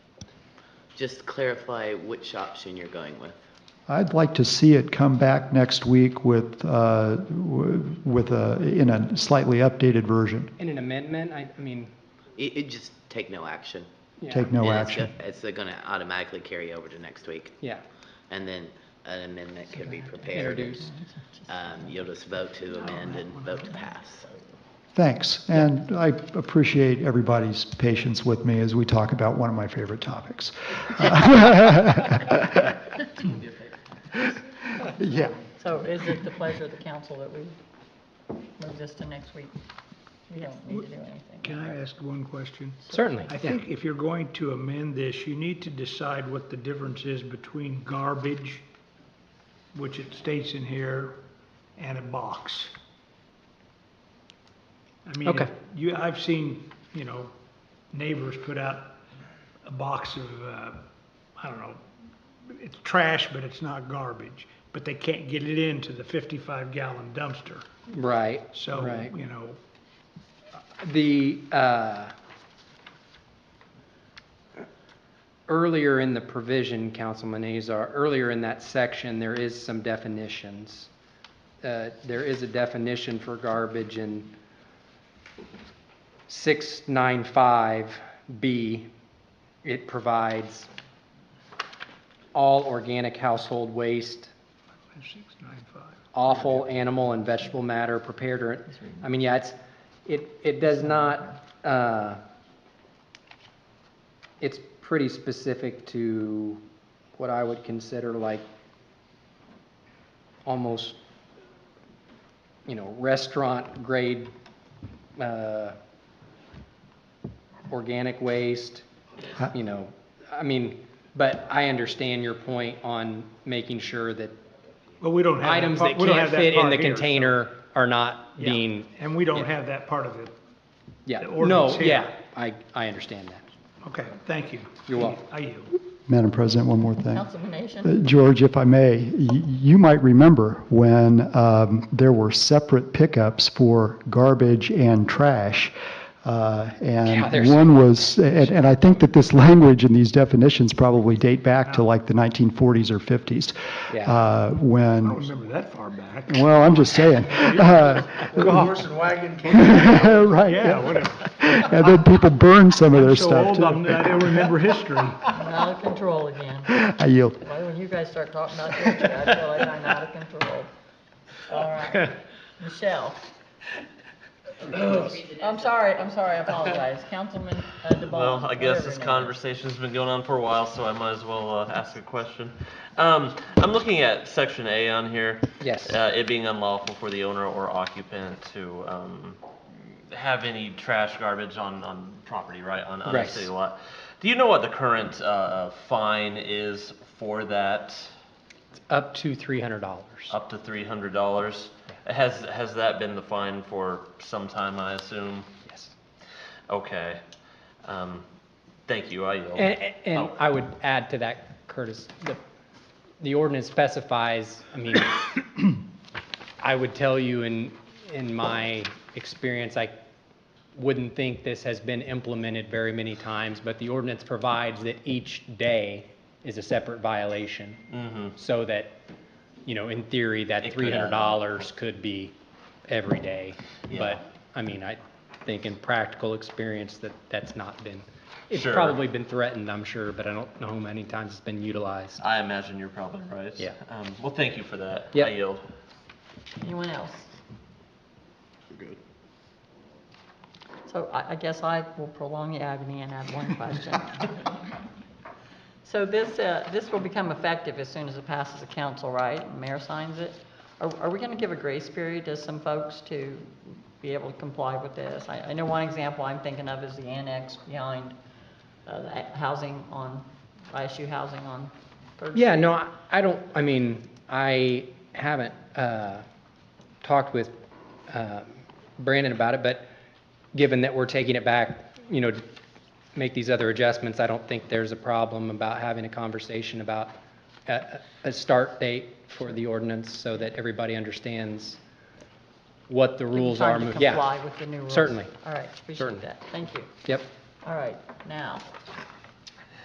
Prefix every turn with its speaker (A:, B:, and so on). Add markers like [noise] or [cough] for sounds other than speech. A: just clarify which option you're going with.
B: I'd like to see it come back next week with, uh, w- with a, in a slightly updated version.
C: In an amendment, I, I mean,
A: It, it just take no action.
C: yeah,
B: Take no
A: And it's
B: action.
A: go- It's gonna automatically carry over to next week,
C: yeah,
A: and then an amendment could be prepared.
C: introduced.
A: Um, you'll just vote to amend and vote to pass.
B: Thanks, and I appreciate everybody's patience with me as we talk about one of my favorite
C: [laughs]
B: topics. [laughs] Yeah,
D: So is it the pleasure of the council that we move this to next week? We don't need to do anything.
E: Can I ask one question?
C: Certainly,
E: I
C: yeah.
E: think if you're going to amend this, you need to decide what the difference is between garbage, which it states in here, and a box. I mean,
C: Okay.
E: you, I've seen, you know, neighbors put out a box of, uh, I don't know, it's trash, but it's not garbage, but they can't get it into the fifty-five gallon dumpster.
C: Right,
E: So,
C: right.
E: you know,
C: The, uh, earlier in the provision, Councilman Azar, earlier in that section, there is some definitions. Uh, There is a definition for garbage in 695B. It provides all organic household waste,
E: six, nine, five.
C: awful animal and vegetable matter prepared or, I mean, yeah, it's, it, it does not, uh, it's pretty specific to what I would consider like almost, you know, restaurant grade, uh, organic waste,
B: Huh?
C: you know, I mean, but I understand your point on making sure that
E: Well, we don't have.
C: items
E: part-
C: that
E: we don't
C: can't
E: have
C: fit in
E: part
C: the
E: here, so-
C: container are not
E: Yeah,
C: being,
E: And we don't
C: yeah.
E: have that part of it.
C: yeah,
E: the ordinance
C: no,
E: here.
C: yeah, I, I understand that.
E: Okay, thank you.
C: You're welcome.
E: I yield.
B: Madam President, one more thing.
D: Councilman
B: Uh,
D: Nation?
B: George, if I may, y- you might remember when um, there were separate pickups for garbage and trash. uh,
C: Yeah, there's-
B: And one was, and and I think that this language and these definitions probably date back to like the 1940s or 50s.
C: Yeah.
B: uh, When,
E: I don't remember that far back.
B: well, I'm just saying. Uh,
E: Horse and wagon.
B: [laughs] Right.
E: Yeah, whatever.
B: And then people burned some of
E: I'm
B: their
E: so
B: stuff
E: old, I'm-
B: too.
E: I don't remember history.
D: I'm out of control again.
B: I yield.
D: Why, when you guys start talking about Georgia, I feel like I'm out of control. All right, Michelle. I'm sorry, I'm sorry, I apologize. Councilman uh, DeBon.
F: Well, I guess
D: whatever your
F: this
D: name is.
F: conversation's been going on for a while, so I might as well uh, ask a question. Um, I'm looking at section A on here.
C: Yes.
F: Uh, it being unlawful for the owner or occupant to um, have any trash, garbage on, on property, right, on, on a
C: Right.
F: city lot. Do you know what the current uh, fine is for that?
C: Up to three hundred dollars.
F: Up to three hundred dollars. Has has that been the fine for some time? I assume.
C: Yes.
F: Okay. Um, thank you. I yield.
C: And, and- and
F: Oh.
C: I would add to that, Curtis, the, the ordinance specifies, I mean, [coughs] I would tell you in, in my experience, I wouldn't think this has been implemented very many times, but the ordinance provides that each day is a separate violation.
F: Mm-hmm.
C: So that, you know, in theory, that
F: It
C: three
F: could
C: hundred
F: add
C: dollars could be every day.
F: Yeah.
C: But, I mean, I think in practical experience that that's not been, it's
F: Sure.
C: probably been threatened, I'm sure, but I don't know how many times it's been utilized.
F: I imagine you're probably right.
C: Yeah.
F: Um, well, thank you for that.
C: Yep.
F: I yield.
D: Anyone else? So I, I guess I will prolong the agony and add one question. So this, uh, this will become effective as soon as it passes the council, right? And Mayor signs it. Are, are we gonna give a grace period to some folks to be able to comply with this? I, I know one example I'm thinking of is the annex behind, uh, the housing on, ISU housing on Third
C: Yeah, no, I- I don't, I mean, I haven't uh, talked with uh, Brandon about it, but given that we're taking it back, you know, make these other adjustments, I don't think there's a problem about having a conversation about a a start date for the ordinance so that everybody understands what the rules are.
D: Trying to
C: mov- yeah.
D: comply with the new rules.
C: Certainly.
D: All right, appreciate
C: Certainly.
D: that. Thank you.
C: Yep,
D: All right, now,